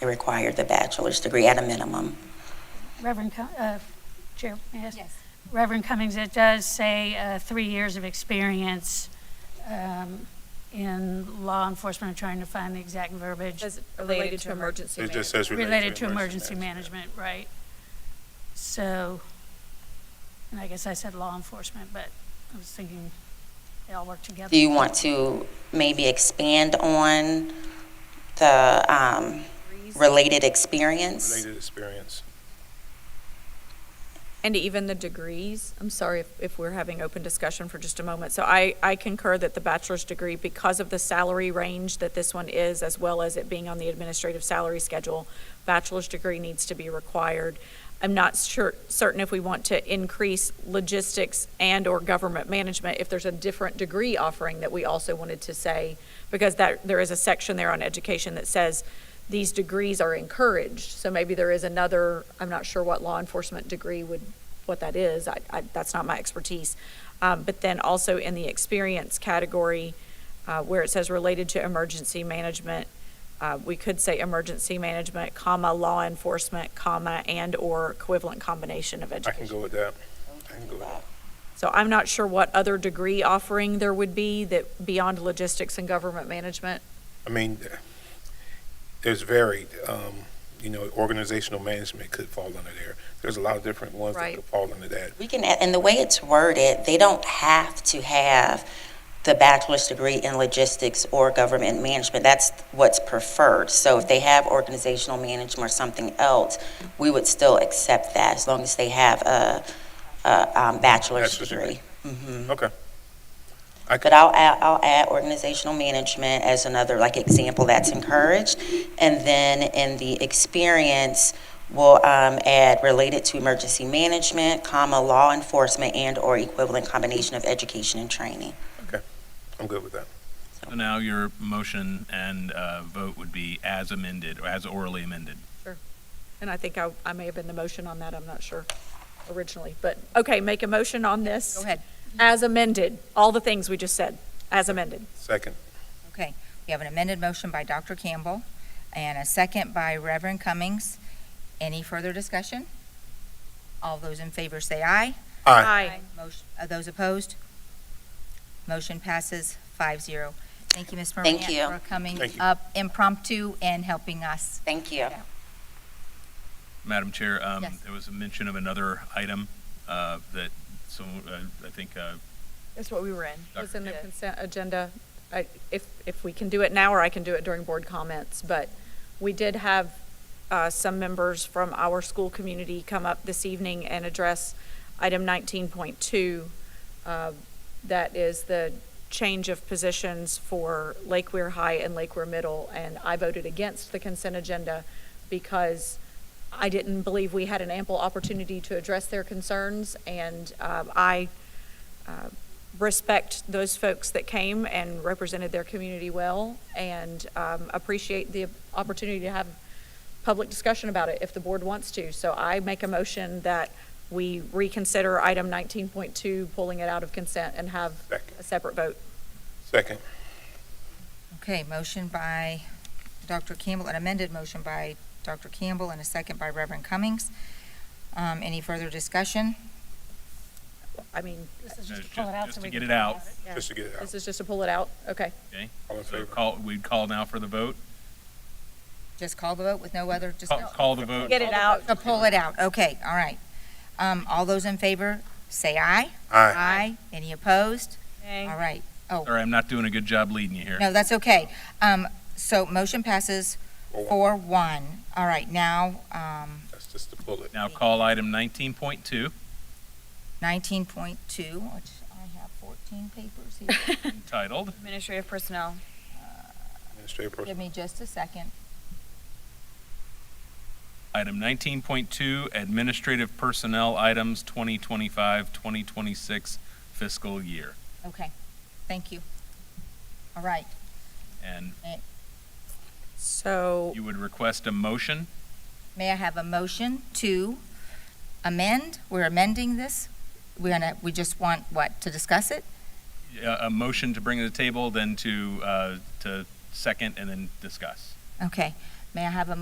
It required the bachelor's degree at a minimum. Reverend, Co- uh, Chair, may I ask? Yes. Reverend Cummings, it does say uh, three years of experience um, in law enforcement, I'm trying to find the exact verbiage, As related to emergency It just management. says related to emergency management, right? So, and I guess I said law enforcement, but I was thinking they all work together. Do you want to maybe expand on the um, related experience? Related experience. And even the degrees, I'm sorry if, if we're having open discussion for just a moment. So I, I concur that the bachelor's degree, because of the salary range that this one is, as well as it being on the administrative salary schedule, bachelor's degree needs to be required. I'm not sure, certain if we want to increase logistics and/or government management, if there's a different degree offering that we also wanted to say, because that, there is a section there on education that says these degrees are encouraged. So maybe there is another, I'm not sure what law enforcement degree would what that is. I, I, that's not my expertise. Um, but then also in the experience category, uh, where it says related to emergency management, uh, we could say emergency management, comma, law enforcement, comma, and/or equivalent combination of I can education. go with that. I can go with that. So I'm not sure what other degree offering there would be that beyond logistics and government management. I mean, there's varied, um, you know, organizational management could fall under there. There's a lot of different ones that Right. could fall under that. We can, add- and the way it's worded, they don't have to have the bachelor's degree in logistics or government management. That's what's preferred. So if they have organizational management or something else, we would still accept that as long as they have a, a um, bachelor's Bachelor's degree. degree. Mhm. Okay. I But could, I'll add, I'll add organizational management as another like example that's encouraged. And then in the experience, we'll um, add related to emergency management, comma, law enforcement and or equivalent combination of education and training. I'm good with that. So now your motion and uh, vote would be as amended or as orally amended. And I think I, I may have been the motion on that, I'm not sure originally, but, okay, make a motion on this. Go ahead. As amended, all the things we just said, as amended. Second, Okay, we have an amended motion by Dr. Campbell and a second by Reverend Cummings. Any further discussion? All those in favor say aye. aye. Motion, uh, those opposed? Motion passes five zero. Thank you, Ms. Moran. Thank you. For coming Thank you. up impromptu and helping us. Thank you. Madam Chair, um, Yes. there was a mention of another item uh, that some, uh, I think, uh, That's what we were in. It was in the Dr. consent agenda. I, if, if we can do it now, or I can do it during board comments, but we did have, uh, some members from our school community come up this evening and address item nineteen point two. uh, That is the change of positions for Lake Weir High and Lake Weir Middle, and I voted against the consent agenda because I didn't believe we had an ample opportunity to address their concerns, and um, I uh, respect those folks that came and represented their community well, and um, appreciate the opportunity to have public discussion about it if the board wants to. So I make a motion that we reconsider item 19.2, pulling it out of consent, and have Second. a separate vote. Second, Okay, motion by Dr. Campbell, an amended motion by Dr. Campbell and a second by Reverend Cummings. Um, any further discussion? I mean, This is No, just to ju- pull it out just so to we get can it talk out. about yeah. just to get it out. this is just to pull it out? Okay. okay? All in So favor? call, we'd call now for the vote. Just call the vote with no other Oh, Call, discussion? call the vote. Get it out. To pull it out, okay, all right. Um, all those in favor, say aye. Aye. Any opposed? All right, Sorry, I'm not doing a good job leading you here. no, that's okay. Um, so motion passes Four one. four one. All right, now, um, That's just to pull it. Now call item 19.2 nineteen point two, which I have fourteen papers here. entitled, Administrative personnel. Administrative person, Give me just a second. item 19.2 Administrative Personnel Items 2025-2026 Fiscal Year. Okay, thank you. All right, And So, you would request a motion may I have a motion to amend? We're amending this? We're gonna, we just want, what, to discuss it? a a motion to bring to the table, then to, uh, to second, and then discuss. Okay, may I have a